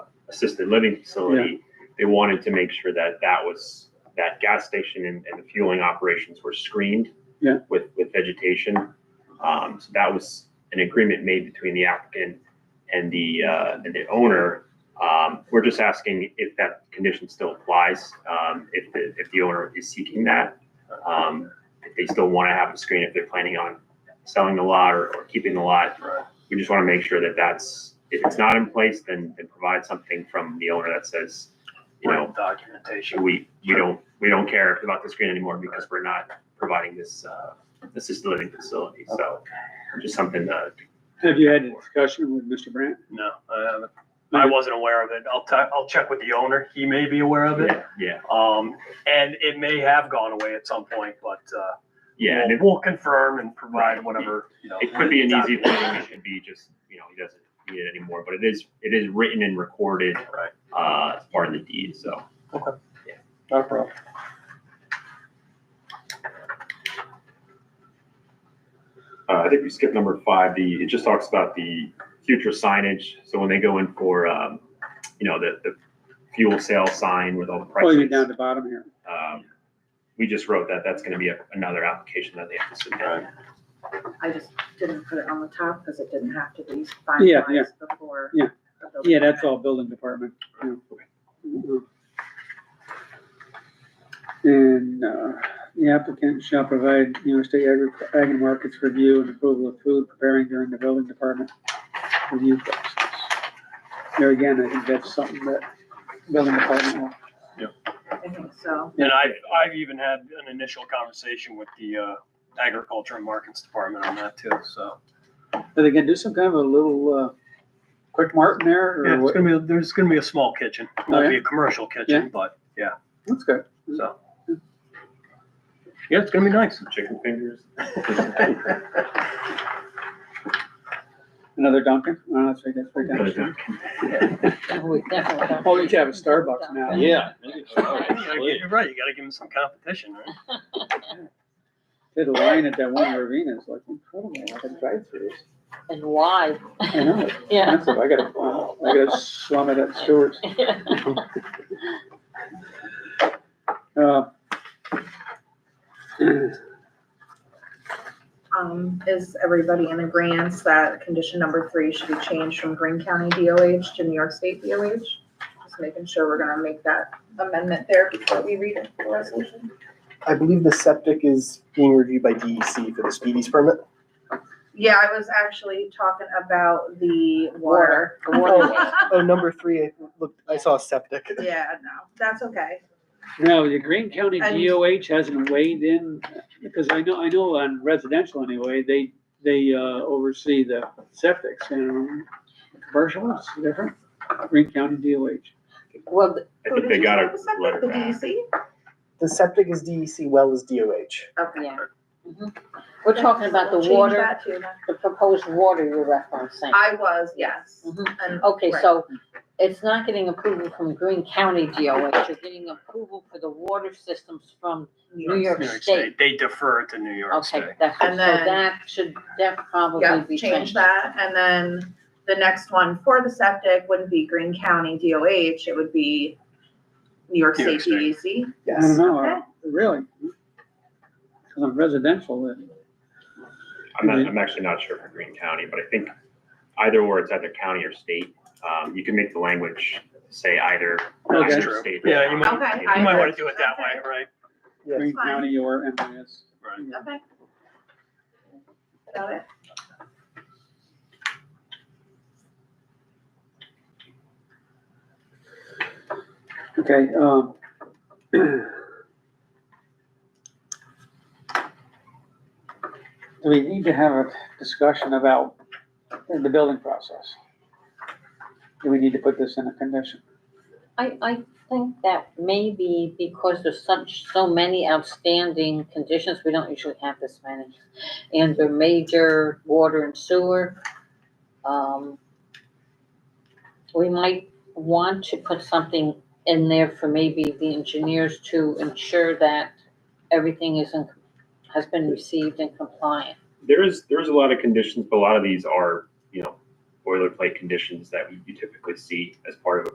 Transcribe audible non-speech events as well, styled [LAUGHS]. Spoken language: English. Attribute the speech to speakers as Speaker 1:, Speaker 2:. Speaker 1: assisted living facility, they wanted to make sure that that was, that gas station and, and the fueling operations were screened
Speaker 2: Yeah.
Speaker 1: with, with vegetation. Um, so that was an agreement made between the applicant and the, uh, and the owner. Um, we're just asking if that condition still applies, um, if the, if the owner is seeking that. Um, if they still want to have a screen, if they're planning on selling the lot or, or keeping the lot. We just want to make sure that that's, if it's not in place, then, then provide something from the owner that says, you know,
Speaker 3: documentation.
Speaker 1: we, we don't, we don't care about the screen anymore because we're not providing this, uh, assisted living facility. So just something to.
Speaker 2: Have you had a discussion with Mr. Brandt?
Speaker 3: No, I haven't. I wasn't aware of it. I'll i I'll check with the owner. He may be aware of it.
Speaker 1: Yeah, yeah,
Speaker 3: Um, and it may have gone away at some point, but, uh,
Speaker 1: yeah. And
Speaker 3: we'll-
Speaker 1: it,
Speaker 3: We'll confirm and provide whatever, you know.
Speaker 1: it could be an easy thing. It could be just, you know, he doesn't need it anymore, but it is, it is written and recorded,
Speaker 3: Right,
Speaker 1: uh, as part of the deed. So.
Speaker 3: not a problem.
Speaker 1: Uh, I think we skipped number five. The, it just talks about the future signage. So when they go in for, um, you know, the, the fuel sale sign with all the
Speaker 2: Oh, you're down
Speaker 1: prices.
Speaker 2: the bottom here.
Speaker 1: Um, we just wrote that. That's gonna be a- another application that they have to submit.
Speaker 4: I just didn't put it on the top because it didn't have to be
Speaker 2: Yeah, yeah.
Speaker 4: finalized before.
Speaker 2: Yeah.
Speaker 4: the building
Speaker 2: Yeah, that's
Speaker 4: permit.
Speaker 2: all building department. yeah. Mhm. And, uh, the applicant shall provide New York State Agri, Ag and Markets review and approval of food preparing during the building department review process. There again, I think that's something that building department will,
Speaker 4: I think so.
Speaker 3: And I've, I've even had an initial conversation with the, uh, agriculture and markets department on that too, so.
Speaker 2: but again, do some kind of a little, uh, quick martin there
Speaker 3: Yeah,
Speaker 2: or
Speaker 3: it's
Speaker 2: what?
Speaker 3: gonna be, there's gonna be a small kitchen. It'll be a commercial kitchen, but, yeah,
Speaker 2: That's good.
Speaker 3: so. Yeah, it's gonna be nice.
Speaker 1: Chicken fingers.
Speaker 3: [LAUGHS]
Speaker 2: Another Dunkin'? Oh, that's right, that's right
Speaker 1: uh,
Speaker 2: down the street. Oh, you could have a Starbucks now.
Speaker 5: Yeah.
Speaker 6: Oh,
Speaker 3: You're right, you gotta give them some competition, right?
Speaker 2: Did a line at that one arena, it's like incredible, like a drive-through.
Speaker 6: And why?
Speaker 2: I know, it's
Speaker 6: Yeah.
Speaker 2: expensive, I gotta, um, I gotta slum it at Stewart's. Uh,
Speaker 4: Um, is everybody in agreement that condition number three should be changed from Green County DOH to New York State DOH? Just making sure we're gonna make that amendment there before we read it for resolution.
Speaker 5: I believe the septic is being reviewed by DEC for the speedies permit.
Speaker 4: Yeah, I was actually talking about the water.
Speaker 6: The water.
Speaker 5: Oh, number three, I looked, I saw septic.
Speaker 4: Yeah, no, that's okay.
Speaker 2: No, the Green County
Speaker 4: And-
Speaker 2: DOH hasn't weighed in, because I know, I know on residential anyway, they, they uh, oversee the septics and um, commercial, it's different. Green County DOH.
Speaker 6: Well, th-
Speaker 1: I
Speaker 4: Who
Speaker 1: think
Speaker 4: did
Speaker 1: they
Speaker 4: you
Speaker 1: got
Speaker 4: have
Speaker 1: a
Speaker 4: a second?
Speaker 1: letter
Speaker 4: The E
Speaker 1: back.
Speaker 4: DEC?
Speaker 5: The septic is DEC, well is DOH.
Speaker 4: Okay.
Speaker 6: yeah. Mhm. We're talking about the
Speaker 4: Change
Speaker 6: water,
Speaker 4: that to that.
Speaker 6: the proposed water you're referencing.
Speaker 4: I was, yes.
Speaker 6: Mhm.
Speaker 4: And-
Speaker 6: Okay,
Speaker 4: right.
Speaker 6: so it's not getting approval from Green County DOH, you're getting approval for the water systems from, New York State.
Speaker 3: They defer to New York State.
Speaker 6: okay, that, so
Speaker 4: And then-
Speaker 6: that should, that probably
Speaker 4: Yeah,
Speaker 6: be
Speaker 4: change
Speaker 6: changed.
Speaker 4: that, and then the next one for the septic wouldn't be Green County DOH, it would be New York
Speaker 3: New York
Speaker 4: State E DEC.
Speaker 2: I don't
Speaker 5: Yes.
Speaker 2: know,
Speaker 4: Okay.
Speaker 2: I- really. Because on residential, it-
Speaker 1: I'm not, I'm actually not sure for Green County, but I think either or it's either county or state. Um, you can make the language say either,
Speaker 2: Okay.
Speaker 1: either state. or
Speaker 3: Yeah, you
Speaker 1: county.
Speaker 4: might- Okay,
Speaker 3: You
Speaker 4: I
Speaker 3: might
Speaker 4: heard-
Speaker 3: wanna do it that way, right?
Speaker 5: Yes.
Speaker 2: Green
Speaker 4: fine.
Speaker 2: County or MIS.
Speaker 3: Right.
Speaker 2: Yeah.
Speaker 4: Okay. Got it.
Speaker 2: Okay, um. [CLEARS THROAT] Do we need to have a discussion about the building process? Do we need to put this in a condition?
Speaker 6: I, I think that maybe because there's such, so many outstanding conditions, we don't usually have this many. And they're major water and sewer. Um, we might want to put something in there for maybe the engineers to ensure that everything is in, has been received and compliant.
Speaker 1: There is, there is a lot of conditions, but a lot of these are, you know, boilerplate conditions that you typically see as part of a